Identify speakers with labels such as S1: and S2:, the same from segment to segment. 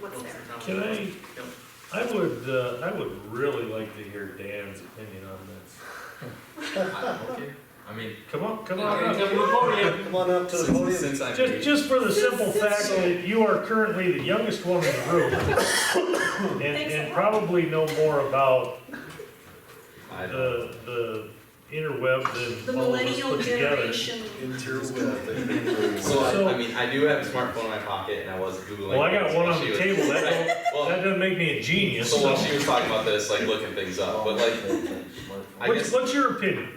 S1: what's there.
S2: Can I, I would, uh, I would really like to hear Dan's opinion on this.
S3: Okay, I mean,
S2: Come on, come on
S3: okay,
S2: up.
S3: come to the podium.
S4: Come on up to the
S3: Since,
S4: podium.
S3: since I've
S2: Just,
S3: been,
S2: just for the simple fact that you are currently the youngest one in the room. And,
S1: Thanks a
S2: and
S1: lot.
S2: probably know more about
S3: I don't,
S2: the, the interweb
S1: The
S2: than all of us
S1: millennial
S2: put together.
S1: generation,
S3: so
S2: So-
S3: I, I mean, I do have a smartphone in my pocket and I was Googling.
S2: Well, I got
S3: things
S2: one
S3: while
S2: on
S3: she
S2: the
S3: was-
S2: table, that don't, that
S3: Well,
S2: doesn't make me a genius.
S3: so uh,
S2: so-
S3: while she was talking about this, like looking things up, but like, I
S2: What's,
S3: guess
S2: what's your opinion?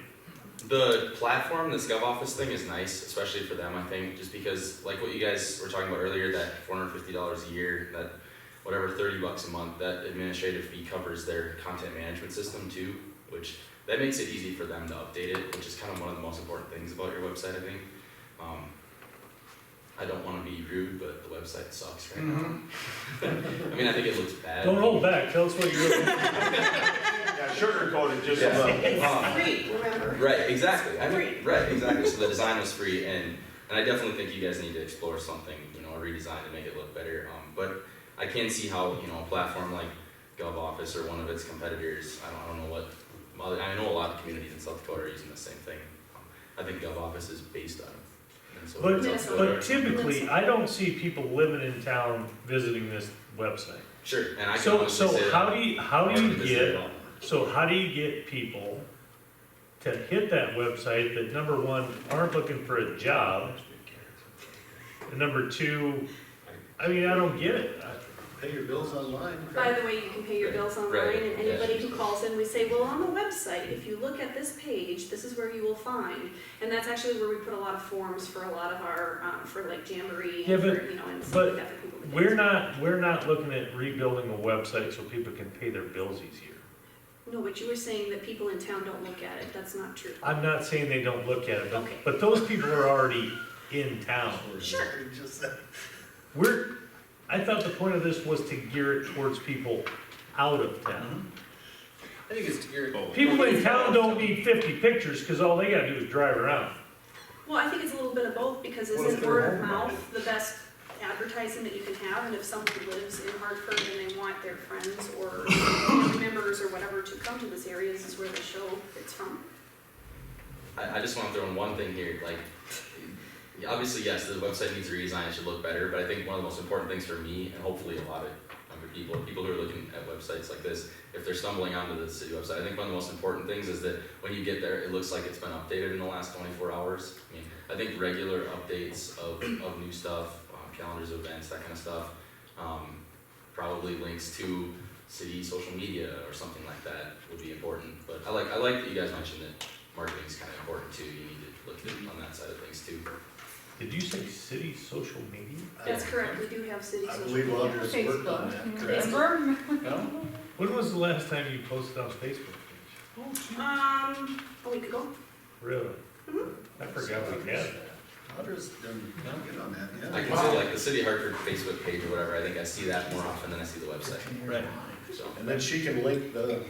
S3: the platform, this GovOffice thing is nice, especially for them, I think, just because, like what you guys were talking about earlier, that four hundred fifty dollars a year, that whatever thirty bucks a month, that administrative fee covers their content management system too, which that makes it easy for them to update it, which is kind of one of the most important things about your website, I think. Um, I don't want to be rude, but the website sucks right now. I mean, I think it looks bad.
S2: Mm-hmm. Don't hold back, tell us what you're looking for.
S4: Sugarcoated just
S3: Yeah.
S4: about.
S3: Um,
S1: it's free, remember?
S3: Right, exactly. I
S1: Free.
S3: mean, right, exactly. So the design was free, and and I definitely think you guys need to explore something, you know, a redesign to make it look better. Um, but I can see how you know a platform like GovOffice or one of its competitors. I don't, I don't know what. Well, I know a lot of communities in South Dakota are using the same thing. Um, I think GovOffice is based on. it. And so
S2: But,
S1: Minnesota.
S2: but typically, I don't see people living in town visiting this website.
S3: sure, and I can
S2: So,
S3: honestly
S2: so
S3: say that
S2: how do you, how
S3: I
S2: do you
S3: haven't visited
S2: get,
S3: all.
S2: so how do you get people to hit that website that number one, aren't looking for a job? And number two, I mean, I don't get it.
S4: Pay your bills online.
S1: By the way, you can pay your bills online,
S3: Right,
S1: and
S3: yeah.
S1: anybody who calls in, we say, well, on the website, if you look at this page, this is where you will find. And that's actually where we put a lot of forms for a lot of our, um, for like Jamboree
S2: Yeah,
S1: and
S2: but-
S1: for, you know, and stuff like that. for people to get
S2: We're
S1: to.
S2: not, we're not looking at rebuilding a website so people can pay their bills easier.
S1: No, but you were saying that people in town don't look at it, that's not true.
S2: I'm not saying they don't look at it, but,
S1: Okay.
S2: but those people are already in town.
S1: Sure.
S4: Just that.
S2: We're, I thought the point of this was to gear it towards people out of town.
S5: I think it's geared.
S2: People in town don't need fifty pictures, cause all they gotta do is drive around.
S1: Well, I think it's a little bit of both, because
S4: Well, if
S1: isn't
S4: they're
S1: word of
S4: home about
S1: mouth the best advertising that you can have? And if someone lives in Hartford and they want their friends or family members or whatever to come to this area, this is where the show it's from.
S3: I, I just want to throw in one thing here, like, yeah, obviously, yes, the website needs a redesign, it should look better, but I think one of the most important things for me, and hopefully a lot of other people, people who are looking at websites like this, if they're stumbling onto the city website, I think one of the most important things is that when you get there, it looks like it's been updated in the last twenty-four hours. I mean, I think regular updates of, of new stuff, um, calendars, of events, that kind of stuff, um, probably links to city social media or something like that would be important, but I like, I like that you guys mentioned that marketing's kind of important too. You need to look at on that side of things too.
S2: Did you say city social media?
S1: That's correct, we do have city
S4: I
S1: social
S4: believe
S1: media.
S4: Audra's worked on that, correct?
S5: No?
S2: When was the last time you posted on Facebook page?
S1: Um, a week ago,
S2: Really?
S4: Mm-hmm.
S2: I forgot we had. that.
S4: Audra's done, good on that, yeah.
S3: I can see like the City of Hartford Facebook page or whatever. I think I see that more often than I see the website.
S4: Right.
S3: So
S4: And then she can link the,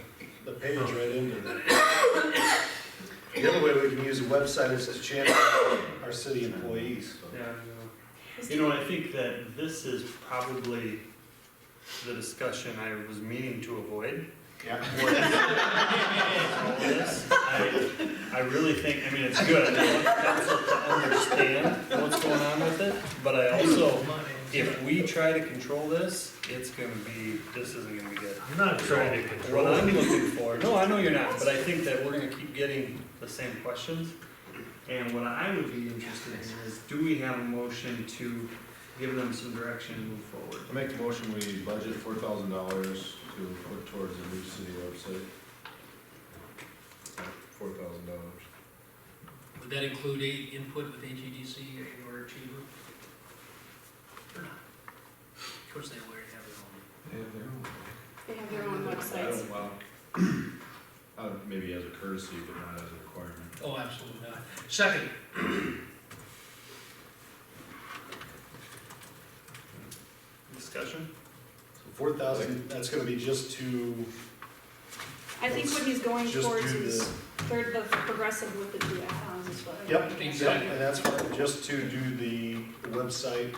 S4: the page right into that. The other way we can use a website is to channel our city employees.
S6: Yeah,
S1: Is
S6: you know, I think that this is probably the discussion I was meaning to avoid.
S4: Yeah.
S6: All this, I, I really think, I mean, it's good, I want council to understand what's going on with it, but I also, if we try to control this, it's gonna be, this isn't gonna be good.
S2: I'm not trying to control
S6: What
S2: it.
S6: I'm looking for, no, I know you're not, but I think that we're gonna keep getting the same questions. And what I would be interested in is, do we have a motion to give them some direction and move forward?
S7: I make a motion, we budget four thousand dollars to put towards a new city website. Four thousand dollars.
S5: Would that include a input with AGDC or your achiever? Or not? Of course, they already have their own.
S1: They have their own
S7: I
S1: websites.
S7: don't, wow. Uh, maybe as a courtesy, but not as a requirement.
S5: Oh, absolutely not. Second,
S6: Discussion?
S4: Four thousand, that's gonna be just to,
S1: I think what he's going
S4: just
S1: towards
S4: do
S1: is
S4: the,
S1: third, the progressive with the two icons is what I.
S4: yep, yep,
S5: Exactly.
S4: and that's what, just to do the website.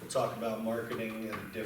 S4: We'll talk about marketing and different